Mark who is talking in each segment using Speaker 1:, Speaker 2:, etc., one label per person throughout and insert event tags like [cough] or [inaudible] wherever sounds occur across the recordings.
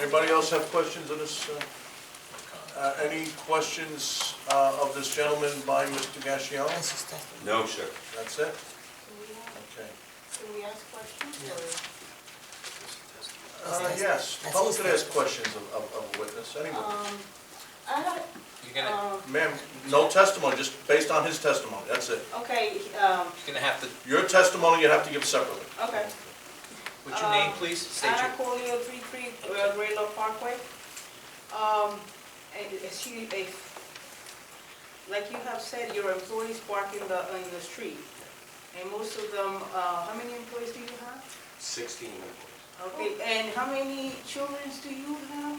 Speaker 1: Anybody else have questions on this? uh, uh, Any questions uh, of this gentleman by Mr. Gassion?
Speaker 2: No, sir.
Speaker 1: That's it?
Speaker 3: Can we, uh,
Speaker 1: Okay.
Speaker 3: can we ask questions or?
Speaker 1: Uh, Yes,
Speaker 4: That's
Speaker 1: public
Speaker 4: his
Speaker 1: could ask questions of of- of a witness, anyone.
Speaker 3: Um, I don't,
Speaker 5: You're gonna,
Speaker 3: um,
Speaker 1: Ma'am, no testimony, just based on his testimony, that's it.
Speaker 3: okay, um,
Speaker 5: you're gonna have to,
Speaker 1: Your testimony you have to give separately.
Speaker 3: okay.
Speaker 5: what's your name,
Speaker 3: Um,
Speaker 5: please? State your,
Speaker 3: Anna Colio, three three, uh, Railroad Parkway. Um, and is she, if, like you have said, your employees park in the, in the street. And most of them, uh, how many employees do you have?
Speaker 2: Sixteen employees.
Speaker 3: Okay, and how many children do you have?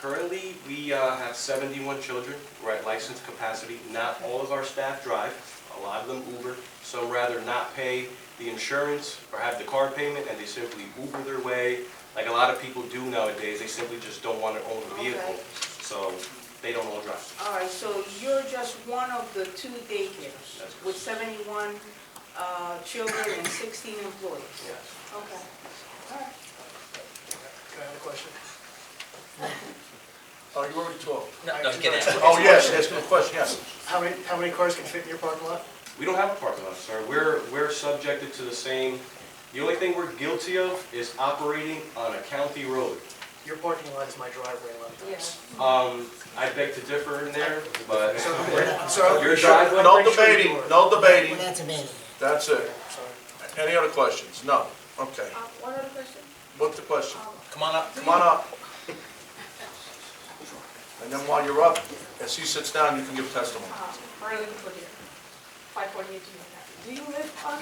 Speaker 2: Currently, we uh, have seventy-one children. We're at licensed capacity. Not all of our staff drive. A lot of them Uber. Some rather not pay the insurance or have the car payment, and they simply Uber their way. Like a lot of people do nowadays, they simply just don't want to own a vehicle,
Speaker 3: Okay.
Speaker 2: so they don't all drive.
Speaker 3: All right, so you're just one of the two daycares
Speaker 2: That's correct.
Speaker 3: with 71 uh, children and 16 employees?
Speaker 2: Yes.
Speaker 3: Okay. All right.
Speaker 6: I have a question?
Speaker 1: Oh, you already talked.
Speaker 5: no, no, get out.
Speaker 1: Oh, yes, ask him a question, yes.
Speaker 6: How many, how many cars can fit in your parking lot?
Speaker 2: We don't have a parking lot, sir. We're, we're subjected to the same, the only thing we're guilty of is operating on a county road.
Speaker 6: Your parking lot is my driveway a lot of times.
Speaker 2: Um, I beg to differ in there, but
Speaker 6: So, we're- so-
Speaker 2: your driveway,
Speaker 1: No
Speaker 6: Make sure you
Speaker 1: debating,
Speaker 6: do it.
Speaker 1: no
Speaker 4: Well,
Speaker 1: debating,
Speaker 4: that's a man.
Speaker 1: that's it.
Speaker 6: Sorry.
Speaker 1: Any other questions? No, okay.
Speaker 3: Uh, One other question?
Speaker 1: What's the question?
Speaker 5: Come on up.
Speaker 1: Come on up. And then while you're up, as he sits down, you can give testimony.
Speaker 3: um, Marlene Cordier, 548 Do you um, live on,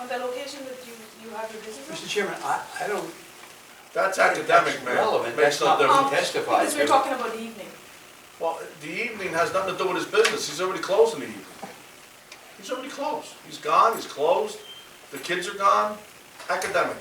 Speaker 3: on the location that you, you have your business?
Speaker 6: Mr. Chairman, I, I don't,
Speaker 1: That's academic, man.
Speaker 7: relevant.
Speaker 1: Makes
Speaker 7: That's
Speaker 1: no
Speaker 7: not-
Speaker 1: difference.
Speaker 3: Um,
Speaker 7: testified,
Speaker 3: Because we're
Speaker 7: but-
Speaker 3: talking about the evening.
Speaker 1: Well, the evening has nothing to do with his business, he's already closed in the evening. He's already closed, he's gone, he's closed, the kids are gone, academic.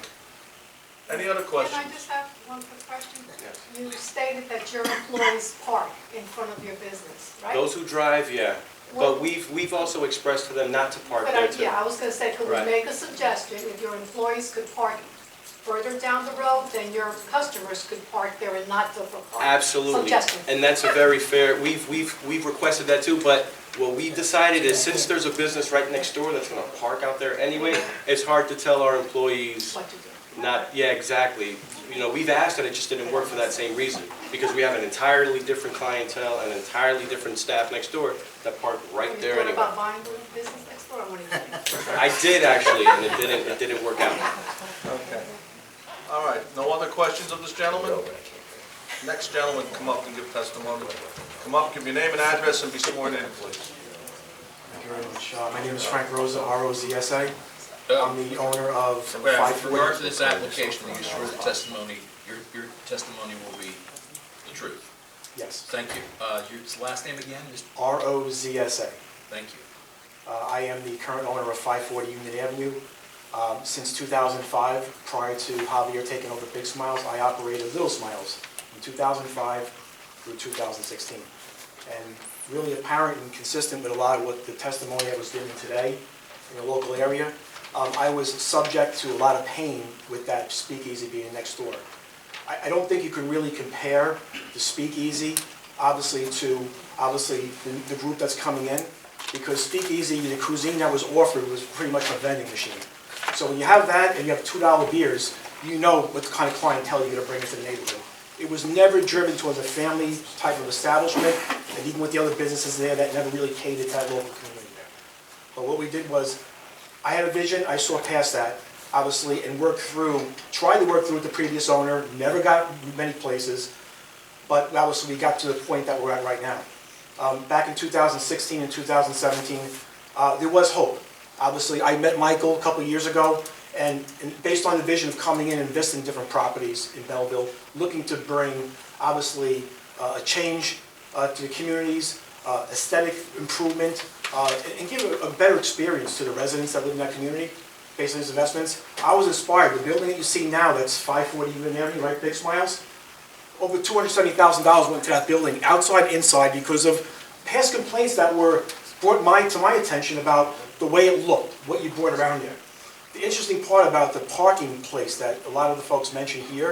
Speaker 1: Any other
Speaker 8: Can I
Speaker 1: questions?
Speaker 8: just have one quick question?
Speaker 2: Yes.
Speaker 8: You stated that your employees park in front of your business,
Speaker 2: [laughs]
Speaker 8: right?
Speaker 2: those who drive, yeah. But
Speaker 8: Well-
Speaker 2: we've, we've also expressed to them not to park
Speaker 8: But
Speaker 2: there
Speaker 8: I-
Speaker 2: too.
Speaker 8: Yeah, I was gonna say, could we
Speaker 2: Right.
Speaker 8: make a suggestion if your employees could park further down the road, then your customers could park there and not Dover Park?
Speaker 2: Absolutely.
Speaker 8: Suggestion.
Speaker 2: And that's a very fair, we've, we've, we've requested that too, but what we've decided is since there's a business right next door that's gonna park out there anyway, it's hard to tell our employees
Speaker 8: What to do.
Speaker 2: not, yeah, exactly. You know, we've asked and it just didn't work for that same reason, because we have an entirely different clientele and entirely different staff next door that park right there
Speaker 8: What
Speaker 2: anyway.
Speaker 8: about buying the business next door? I wanna hear.
Speaker 2: I did actually, and it didn't, it didn't work out.
Speaker 1: Okay. All right, no other questions of this gentleman? Next gentleman, come up and give testimony. Come up, give your name and address, and be sworn in, please.
Speaker 6: Thank you very much. Uh, My name is Frank Rosa, R-O-Z-S-A. I'm the owner of
Speaker 5: Wait,
Speaker 6: Um, Five
Speaker 5: With regard to
Speaker 6: Forty.
Speaker 5: this application, you swear the testimony, your, your testimony will be the truth.
Speaker 6: Yes,
Speaker 5: Thank you. Uh, your last name again, just,
Speaker 6: R-O-Z-S-A.
Speaker 5: thank you.
Speaker 6: Uh, I am the current owner of 540 Union Avenue. Um, Since 2005, prior to Javier taking over Big Smiles, I operated Little Smiles from 2005 through 2016. And really apparent and consistent with a lot of what the testimony that was given today in the local area, um, I was subject to a lot of pain with that speakeasy being next door. I, I don't think you can really compare the speakeasy, obviously, to, obviously, the, the group that's coming in, because speakeasy, the cuisine that was offered was pretty much a vending machine. So when you have that and you have two-dollar beers, you know what kind of clientele you're gonna bring into the neighborhood. It was never driven towards a family type of establishment, and even with the other businesses there, that never really catered to that local community there. But what we did was, I had a vision, I saw past that, obviously, and worked through, tried to work through with the previous owner, never got many places, but obviously, we got to the point that we're at right now. Um, Back in 2016 and 2017, uh, there was hope. Obviously, I met Michael a couple of years ago, and and based on the vision of coming in and investing in different properties in Belleville, looking to bring, obviously, uh, a change uh, to the communities, uh, aesthetic improvement, uh, and- and give a a better experience to the residents that live in that community based on these investments. I was inspired. The building that you see now, that's 540 Union Avenue, right, Big Smiles? over two hundred seventy thousand dollars went to that building, outside, inside, because of past complaints that were brought my, to my attention about the way it looked, what you brought around there. The interesting part about the parking place that a lot of the folks mentioned here